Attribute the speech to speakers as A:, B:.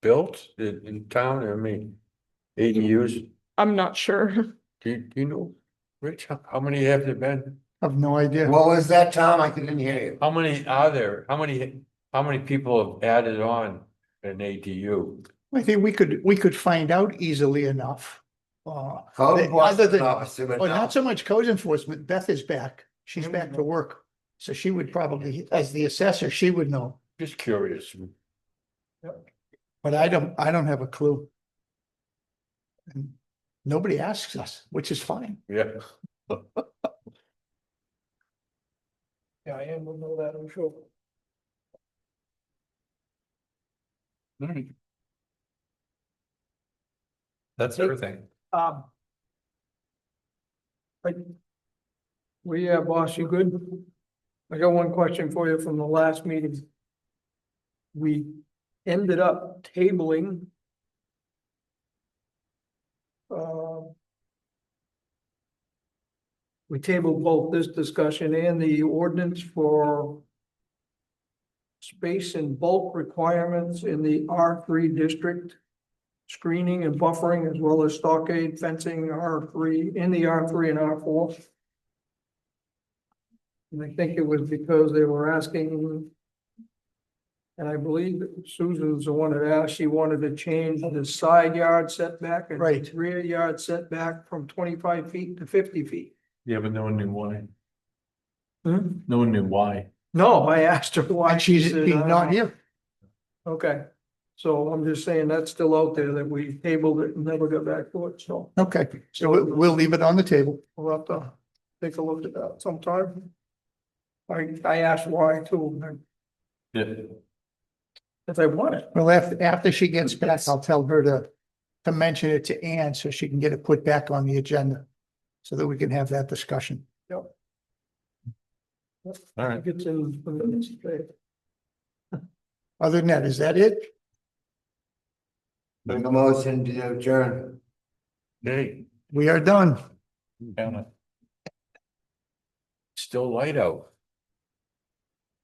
A: built in, in town? I mean,
B: Mm-hmm.
A: ADUs,
C: I'm not sure.
A: do you, do you know, Rich, how, how many have there been?
D: I've no idea.
E: What was that, Tom? I couldn't hear you.
A: How many are there? How many, how many people have added on an ADU?
D: I think we could, we could find out easily enough. Uh,
E: Code
D: They- other
E: enforcement
D: than-
E: officer would
D: well,
E: know.
D: not so much code enforcement. Beth is back. She's back to work. So she would probably, as the assessor, she would know,
A: Just curious.
D: but I don't, I don't have a clue. And Nobody asks us, which is fine.
A: Yeah,
D: Diane will know that, I'm sure.
B: That's everything.
F: Um. I- Well, yeah, boss, you good? I got one question for you from the last meeting. We ended up tabling. um, We tabled both this discussion and the ordinance for. Space and bulk requirements in the R three district screening and buffering as well as stockade fencing R three, in the R three and R four. And I think it was because they were asking. And I believe Susan's the one that asked, she wanted to change the side yard setback and
D: Right.
F: rear yard setback from twenty-five feet to fifty feet.
B: Yeah, but no one knew why. No one knew why.
F: Hmm? No, I asked her why.
D: And she's
F: She said,
D: she's
F: "I
D: not
F: don't
D: here.
F: Okay, so I'm just saying that's still out there that we tabled it and never got back to it, so
D: Okay, so we- we'll leave it on the table.
F: we'll have to take a look at that sometime. I, I asked why too, and
B: Yeah.
F: if they want it.
D: Well, after, after she gets back, I'll tell her to, to mention it to Ann so she can get it put back on the agenda. So that we can have that discussion.
B: All right.
F: It's in the minutes today.
D: Other than that, is that it?
E: Make a motion to adjourn.
A: hey,
D: We are done.
B: Found it.
A: still light out.